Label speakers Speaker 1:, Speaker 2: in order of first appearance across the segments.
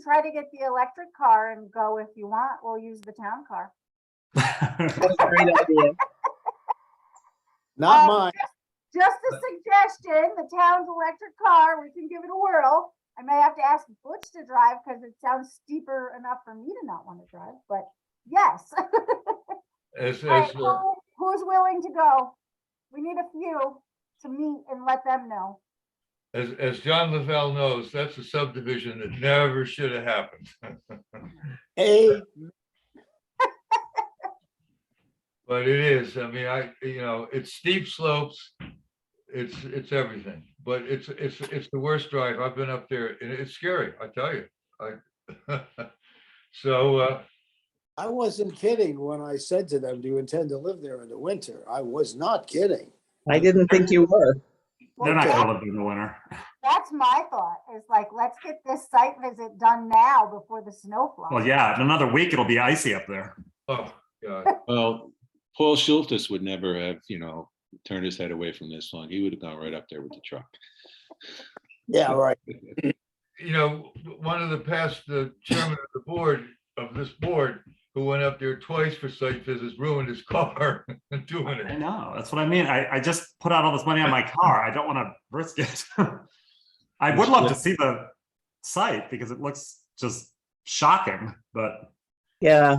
Speaker 1: try to get the electric car and go if you want. We'll use the town car.
Speaker 2: That's a great idea.
Speaker 1: Um,
Speaker 3: Not mine.
Speaker 1: Just a suggestion, the town's electric car, we can give it a whirl. I may have to ask Butch to drive because it sounds steeper enough for me to not want to drive, but yes.
Speaker 4: It's,
Speaker 1: All right,
Speaker 4: it's, uh,
Speaker 1: who- Who's willing to go? We need a few to meet and let them know.
Speaker 4: as, as John Lavelle knows, that's a subdivision that never should have happened.
Speaker 3: A,
Speaker 4: But it is, I mean, I, you know, it's steep slopes. It's, it's everything, but it's, it's, it's the worst drive. I've been up there and it's scary, I tell you. I So, uh,
Speaker 3: I wasn't kidding when I said to them, do you intend to live there in the winter? I was not kidding.
Speaker 2: I didn't think you were.
Speaker 5: They're not gonna live in the winter.
Speaker 1: That's my thought, is like, let's get this site visit done now before the snow flies.
Speaker 5: Well, yeah, in another week it'll be icy up there.
Speaker 4: oh, God.
Speaker 6: Well, Paul Schultes would never have, you know, turned his head away from this long. He would have gone right up there with the truck.
Speaker 3: Yeah, right.
Speaker 4: you know, w- one of the past, the chairman of the board, of this board, who went up there twice for site visits, ruined his car doing
Speaker 5: I
Speaker 4: it.
Speaker 5: know, that's what I mean. I, I just put out all this money on my car. I don't wanna risk it. I would love to see the site because it looks just shocking, but
Speaker 2: Yeah,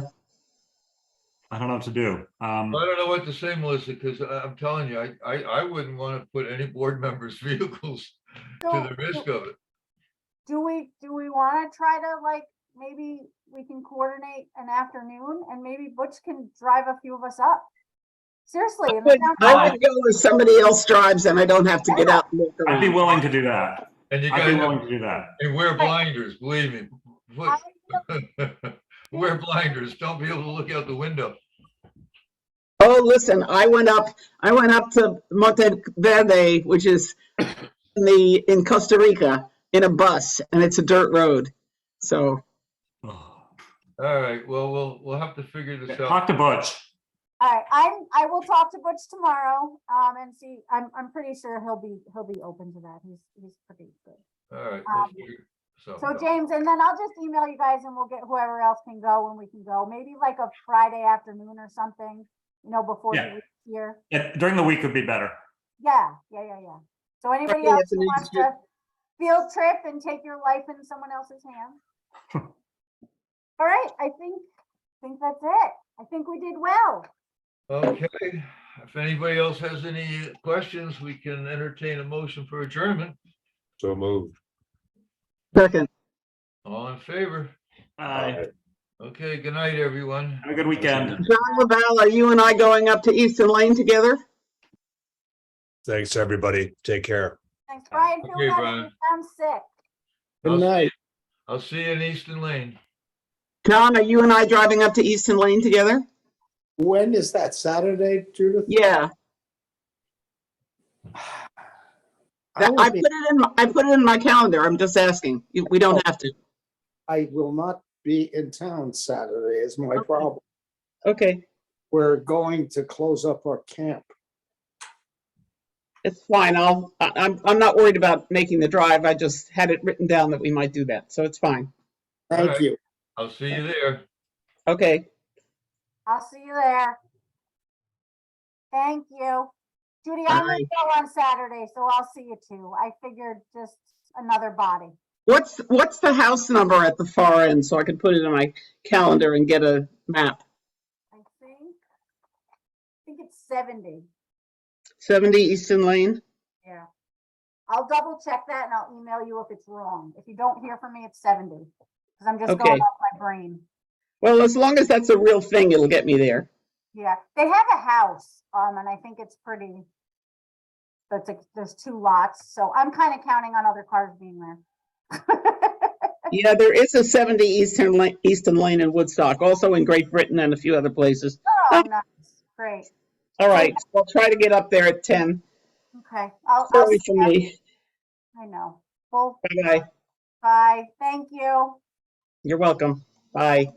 Speaker 5: I don't know what to do. Um,
Speaker 4: I don't know what to say, Melissa, because I'm telling you, I, I, I wouldn't want to put any board members' vehicles to
Speaker 1: So,
Speaker 4: the risk of it.
Speaker 1: Do we, do we want to try to like, maybe we can coordinate an afternoon and maybe Butch can drive a few of us up? Seriously.
Speaker 2: I
Speaker 1: and
Speaker 2: would
Speaker 1: it sounds
Speaker 2: I
Speaker 1: like-
Speaker 2: would go if somebody else drives and I don't have to get out and look
Speaker 5: I'd be
Speaker 2: around.
Speaker 5: willing to do that.
Speaker 4: And you
Speaker 5: I'd be willing
Speaker 4: guys,
Speaker 5: to do that.
Speaker 4: and wear blinders, believe me.
Speaker 1: I
Speaker 4: Put- Wear blinders, don't be able to look out the window.
Speaker 2: Oh, listen, I went up, I went up to Monteverde, which is in the, in Costa Rica, in a bus and it's a dirt road. So,
Speaker 4: All right, well, we'll, we'll have to figure this out.
Speaker 5: Talk to Butch.
Speaker 1: All right, I'm, I will talk to Butch tomorrow, um, and see, I'm, I'm pretty sure he'll be, he'll be open to that. He's, he's pretty good.
Speaker 4: All right.
Speaker 1: Um,
Speaker 2: Oh,
Speaker 1: So James, and then I'll just email you guys and we'll get whoever else can go when we can go, maybe like a Friday afternoon or something, you know, before
Speaker 5: Yeah.
Speaker 1: the week here.
Speaker 5: Yeah, During the week would be better.
Speaker 1: Yeah, yeah, yeah, yeah. So anybody
Speaker 2: Friday
Speaker 1: else who
Speaker 2: afternoon
Speaker 1: wants
Speaker 2: is good.
Speaker 1: to field trip and take your life in someone else's hand? All right, I think, think that's it. I think we did well.
Speaker 4: Okay, if anybody else has any questions, we can entertain a motion for adjournment.
Speaker 7: So moved.
Speaker 2: second,
Speaker 4: All in favor?
Speaker 5: Uh,
Speaker 4: Okay, good night, everyone.
Speaker 5: have a good weekend.
Speaker 2: John Laval, are you and I going up to Easton Lane together?
Speaker 7: Thanks, everybody. Take care.
Speaker 1: Thanks, Brian. Feel
Speaker 4: Okay,
Speaker 1: better.
Speaker 4: Brian.
Speaker 1: You sound sick.
Speaker 3: Good night.
Speaker 4: I'll see you in Easton Lane.
Speaker 2: John, are you and I driving up to Easton Lane together?
Speaker 3: When is that? Saturday, Judith?
Speaker 2: Yeah,
Speaker 3: I
Speaker 2: that, I
Speaker 3: will
Speaker 2: put
Speaker 3: be-
Speaker 2: it in, my- I put it in my calendar. I'm just asking. You- We don't have to.
Speaker 3: I will not be in town Saturday is my problem.
Speaker 2: Okay,
Speaker 3: We're going to close up our camp.
Speaker 2: it's fine. I'll, I- I'm, I'm not worried about making the drive. I just had it written down that we might do that, so it's fine.
Speaker 3: Thank
Speaker 4: Alright.
Speaker 3: you.
Speaker 4: I'll see you there.
Speaker 2: Okay.
Speaker 1: I'll see you there. Thank you. Judy, I'm gonna
Speaker 2: Bye.
Speaker 1: go on Saturday, so I'll see you too. I figured just another body.
Speaker 2: What's, what's the house number at the far end, so I could put it in my calendar and get a map?
Speaker 1: I think, I think it's seventy,
Speaker 2: 70 Easton Lane?
Speaker 1: yeah. I'll double check that and I'll email you if it's wrong. If you don't hear from me, it's seventy. Cause I'm just
Speaker 2: Okay.
Speaker 1: going off my brain.
Speaker 2: Well, as long as that's a real thing, it'll get me there.
Speaker 1: Yeah, they have a house, um, and I think it's pretty. That's like, there's two lots, so I'm kind of counting on other cars being there.
Speaker 2: Yeah, there is a 70 Eastern Lane, Easton Lane in Woodstock, also in Great Britain and a few other places.
Speaker 1: Oh, nice, great,
Speaker 2: All right, I'll try to get up there at 10.
Speaker 1: okay. I'll, I'll
Speaker 2: Sorry
Speaker 1: see
Speaker 2: for
Speaker 1: ya.
Speaker 2: me.
Speaker 1: I know. Well,
Speaker 2: Bye-bye.
Speaker 1: bye, thank you.
Speaker 2: You're welcome. Bye.